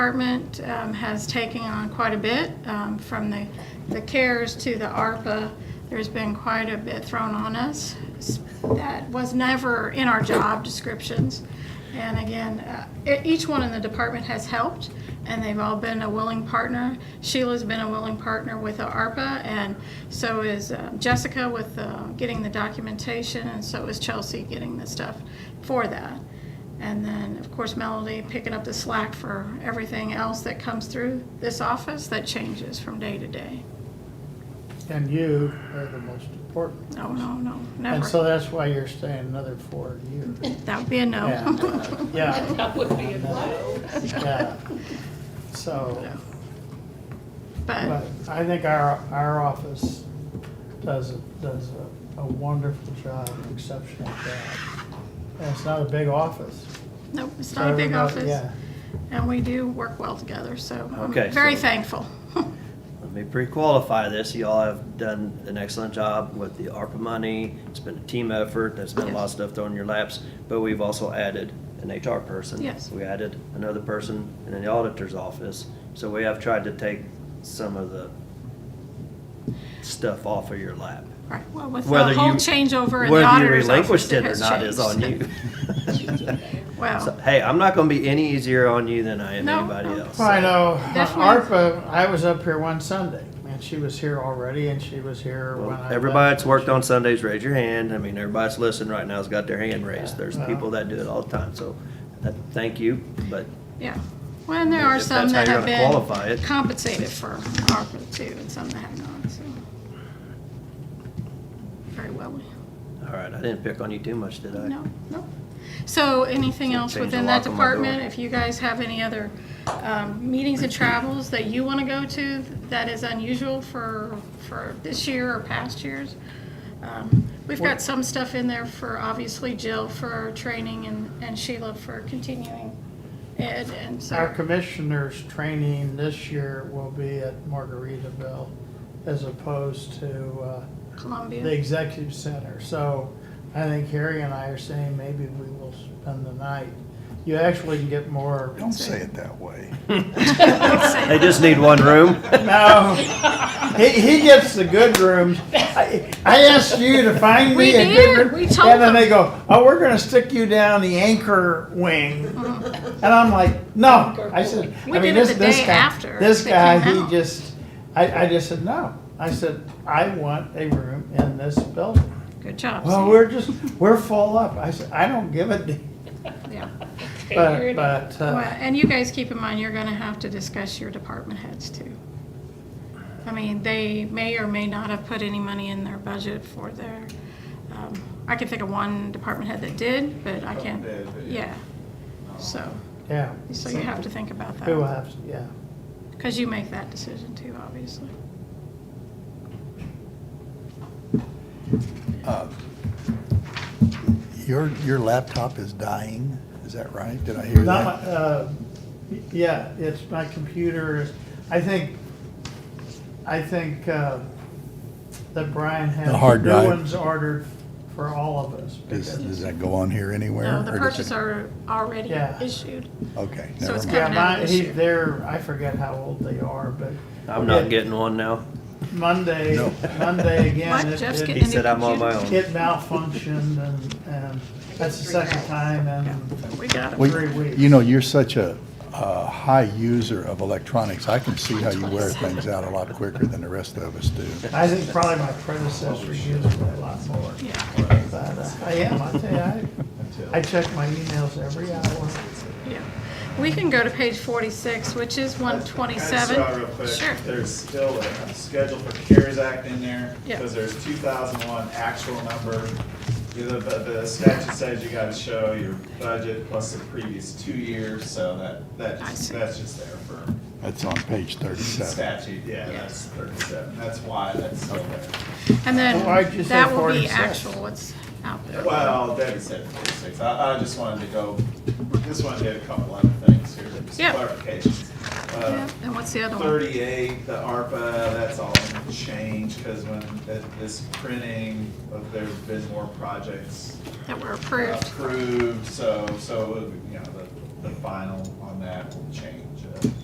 Department um, has taken on quite a bit, um, from the, the CARES to the ARPA. There's been quite a bit thrown on us that was never in our job descriptions. And again, uh, e- each one in the department has helped, and they've all been a willing partner. Sheila's been a willing partner with the ARPA, and so is uh, Jessica with uh, getting the documentation, and so is Chelsea getting the stuff for that. And then, of course, Melody picking up the slack for everything else that comes through this office that changes from day to day. And you are the most important. No, no, no, And so never. that's why you're staying another four years. That would be a no. Yeah, yeah, That would be a no. yeah. So, But, but I think our, our office does, a- does a- a wonderful job, an exceptional job. And it's not a big office. no, it's not a big office, Everybody- Yeah, and we do work well together, so I'm Okay, very so- thankful. Let me pre-qualify this. Y'all have done an excellent job with the ARPA money. It's been a team effort. There's been a lot of stuff thrown in your laps, but we've also added an HR person. Yes. We added another person in the auditor's office. So we have tried to take some of the stuff off of your lap. Right, well, with Whether the whole you- changeover in the Whether you auditor's office, relinquished it it or has not is on changed. you. So, Well, Hey, I'm not gonna be any easier on you than I am No, anybody no. else. Well, I know, uh, Definitely. ARPA, I was up here one Sunday, and she was here already, and she was here when I Well, left. Everybody that's worked on Sundays, raise your hand. I mean, everybody that's listening right now has got their hand raised. There's Yeah. people that do it all the time, so uh, thank you, but yeah, well, and there are If some that's how that you're have gonna qualify been it. compensated for ARPA too, and some that have not, so. Very well, all right, I didn't pick on you too much, did I? no, no. So anything So else change the within that lock on my door. department, if you guys have any other um, meetings and travels that you want to go to that is unusual for, for this year or past years? um, We've got some stuff in there for, obviously Jill for training and and Sheila for continuing ed, and so. Our commissioners' training this year will be at Margaritaville as opposed to uh, the Columbia. executive center. So I think Harry and I are saying maybe we will spend the night. You actually can get more. Don't say it that way. They just need one room. No, he, he gets the good rooms. I, I asked you to find We me a good did. room. We told And then them. they go, oh, we're gonna stick you down the anchor wing. And I'm like, no, I said, We I mean, did it this, the this day guy, after this they guy, came he out. just, I, I just said, no. I said, I want a room in this building. Good job. Well, Sam. we're just, we're full up. I said, I don't give a damn, Yeah. but, but, Well, uh, And you guys keep in mind, you're gonna have to discuss your department heads too. I mean, they may or may not have put any money in their budget for their, um, I can think of one department head that did, but I can't. Yeah. So, yeah, so you have to think about we will that, have, to yeah. because you make that decision too, obviously. Your, your laptop is dying, is that right? Did I hear Not my, that? uh, yeah, it's my computer, is- I think, I think, uh, that Brian has. The hard drive. New ones ordered for all of us. Does, because- does that go on here anywhere? No, Uh, the or does purchase it- order already Yeah. issued. Okay, so never it's mind. Yeah, Coming out mine, this he, year. they're, I forget how old they are, but I'm not Yeah. getting one now. Monday, No. Monday What? again, it, Jeff's it He getting a new said I'm on my computer? own. it malfunctioned and, and that's the second time in We got it. Well, three weeks. You know, you're such a, a high user of electronics. I can see how you wear things out a lot quicker than the rest of us do. I think probably my Oh, predecessor used it a lot more. Yeah, But uh, I am, I tell you, I, I check my emails every hour. yeah. We can go to page forty-six, which is one twenty-seven. I just saw real quick, Sure. There's still a schedule for CARES Act in there, Yeah. because there's two thousand one actual number. The, the- the statute says you gotta show your budget plus the previous two years, so that, that, I see. that's just there for That's on page thirty-seven. statute, yeah, that's thirty-seven, that's why that's still there. And then Why'd you say that will be 46? actual, what's out there. Well, Debbie said forty-six, I, I just wanted to go, just wanted to get a couple other things here, just Yeah. clarifications. Uh, Yeah, And what's the other one? 38, the ARPA, that's all changed, because when th- this printing, uh, there's been more projects That were approved. approved, so, so, you know, the, the final on that will change. uh,